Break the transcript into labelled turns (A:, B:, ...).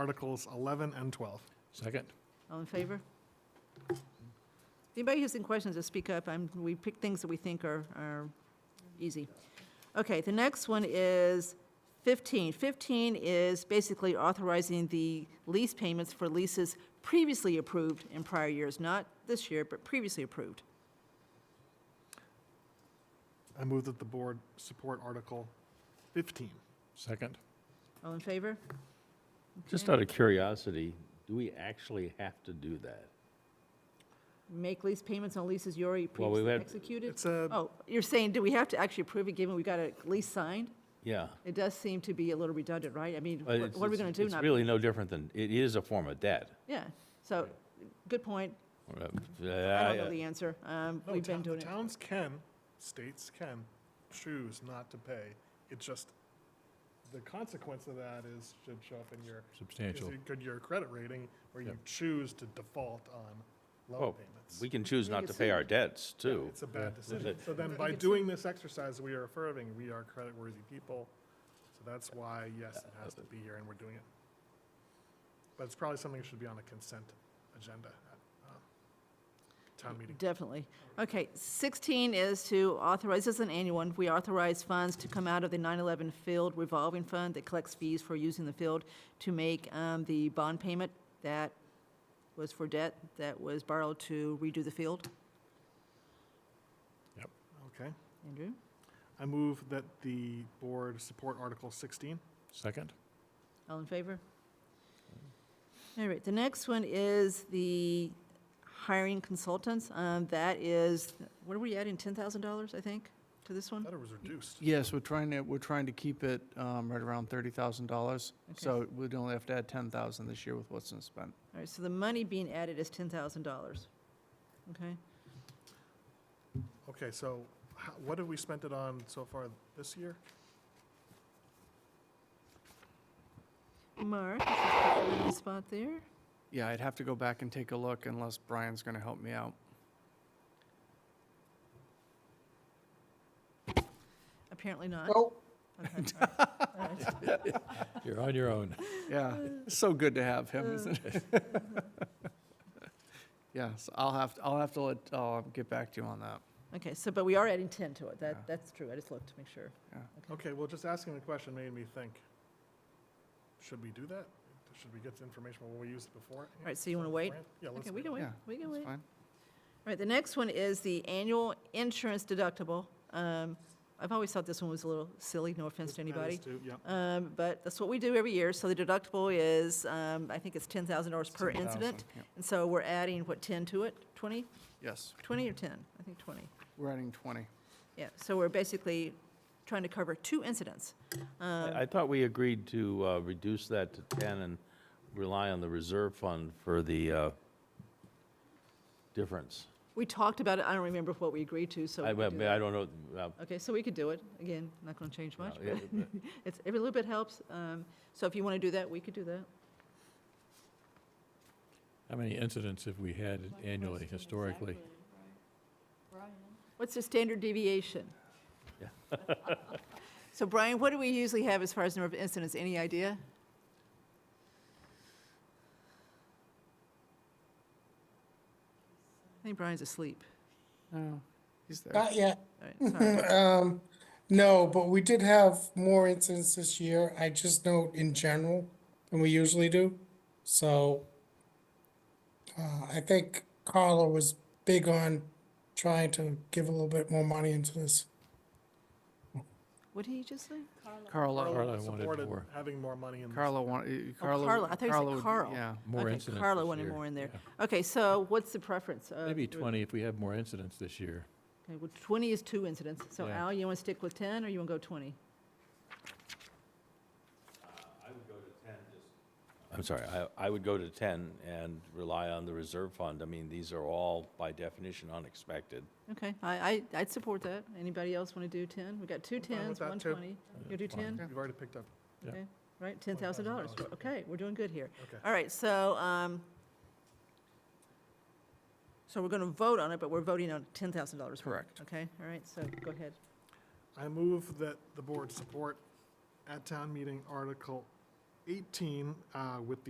A: Articles 11 and 12.
B: Second.
C: All in favor? Anybody who's in questions, just speak up. I'm, we pick things that we think are, are easy. Okay, the next one is 15. 15 is basically authorizing the lease payments for leases previously approved in prior years, not this year, but previously approved.
A: I move that the board support Article 15.
B: Second.
C: All in favor?
D: Just
C: Okay.
D: out of curiosity, do we actually have to do that?
C: Make lease payments on leases you already
D: Well, we
C: previously
D: had-
C: executed?
A: It's a,
C: Oh, you're saying, do we have to actually approve it, given we got a lease signed?
D: Yeah.
C: It does seem to be a little redundant, right? I mean,
D: but
C: what
D: it's-
C: what are we
D: it's-
C: going to do?
D: It's
C: Not
D: really no different than, it is a form of debt.
C: Yeah, so, good point.
D: I Uh,
C: I don't know the answer. Um,
A: no,
C: We've been
A: town-
C: doing
A: the
C: it.
A: towns can, states can choose not to pay. It just, the consequence of that is, should show up in your, is
B: Substantial.
A: it good your credit rating, where you
B: Yeah.
A: choose to default on
D: Oh,
A: loan payments.
D: We can choose
C: We
D: not
C: could
D: to pay our
C: sue.
D: debts, too.
A: It's a bad decision.
D: it.
A: So then
C: We
A: by
C: could
A: doing this exercise, we are affirming, we are creditworthy people. So that's why, yes, it has to be here and we're doing it. But it's probably something that should be on a consent agenda at uh, town meeting.
C: Definitely. Okay, 16 is to authorize, this is an annual one, we authorize funds to come out of the 9/11 Field Revolving Fund that collects fees for using the field to make um, the bond payment that was for debt, that was borrowed to redo the field.
A: Okay.
C: Andrew?
A: I move that the board support Article 16.
B: Second.
C: All in favor? All right, the next one is the hiring consultants. Um, That is, what are we adding, $10,000, I think, to this one?
A: Thought it was reduced.
E: Yes, we're trying to, we're trying to keep it um, right around $30,000.
C: Okay.
E: So we'd only have to add 10,000 this year with what's been spent.
C: All right, so the money being added is $10,000. Okay,
A: Okay, so how- what have we spent it on so far this year?
C: Mark, is this the green spot there?
E: Yeah, I'd have to go back and take a look unless Brian's going to help me out.
C: Apparently not.
E: Oh.
C: Okay, all right, all right.
B: You're on your own.
E: Yeah, it's so good to have him, isn't it? Yes, I'll have, I'll have to let, I'll get back to you on that.
C: Okay, so, but we are adding 10 to it.
E: Yeah.
C: That, that's true. I just looked to make sure.
A: Okay, well, just asking the question made me think, should we do that? Should we get the information, will we use it before?
C: All right, so you want to wait?
A: Yeah, let's
C: Okay,
A: wait.
C: we can wait,
E: Yeah,
C: we can
E: It's
C: wait.
E: fine.
C: Right, the next one is the annual insurance deductible. Um, I've always thought this one was a little silly, no offense to
A: That is
C: anybody.
A: too- yeah.
C: Um, But that's what we do every year, so the deductible is, um, I think it's $10,000 per
E: 10,000,
C: incident.
E: yeah.
C: And so we're adding, what, 10 to it? 20,
E: Yes,
C: 20 or 10? I think 20.
E: we're adding 20.
C: Yeah, so we're basically trying to cover two incidents. Um,
D: I I thought we agreed to uh, reduce that to 10 and rely on the reserve fund for the uh, difference.
C: We talked about it, I don't remember what we agreed to, so.
D: I I
C: we could do that.
D: I don't know, uh,
C: Okay, so we could do it. Again, not going to change much,
D: yeah,
C: but it's, every little bit helps. Um, So if you want to do that, we could do that.
B: How many incidents have we had annually historically?
C: What's the standard deviation?
D: Yeah.
C: So Brian, what do we usually have as far as number of incidents? Any idea? I think Brian's asleep.
E: No, he's there.
F: Not yet.
C: All right, sorry.
F: Um, no, but we did have more incidents this year. I just note in general than we usually do. So uh, I think Carla was big on trying to give a little bit more money into this.
C: What did he just say?
E: Carla,
B: Carla wanted
A: supported
B: more.
A: Having more money in.
E: Carla, wanted- Carla.
C: Carla, Oh, I thought you said
E: would-
C: Carl.
E: Yeah.
B: More
C: Okay,
B: incidents this
C: Carla wanted
B: year.
C: more in there.
B: Yeah.
C: Okay, so what's the preference? Uh,
B: Maybe
C: do it-
B: 20 if we have more incidents this year.
C: okay, well, 20 is two incidents. So
B: Yeah.
C: Al, you want to stick with 10 or you want to go 20?
D: I'm sorry, I- I would go to 10 and rely on the reserve fund. I mean, these are all by definition unexpected.
C: Okay, I, I, I'd support that. Anybody else want to do 10? We got two
A: fine with
C: 10s,
A: that,
C: one
A: too.
C: 20. You do 10?
A: You've already picked up,
B: Yeah.
C: Okay, right, ten thousand dollars,
A: $10,000,
C: okay, we're doing good here.
A: okay.
C: All right, so, um, so we're gonna vote on it, but we're voting on ten thousand dollars.
E: Correct.
C: Okay, all right, so go ahead.
A: I move that the board support at town meeting Article 18 uh, with the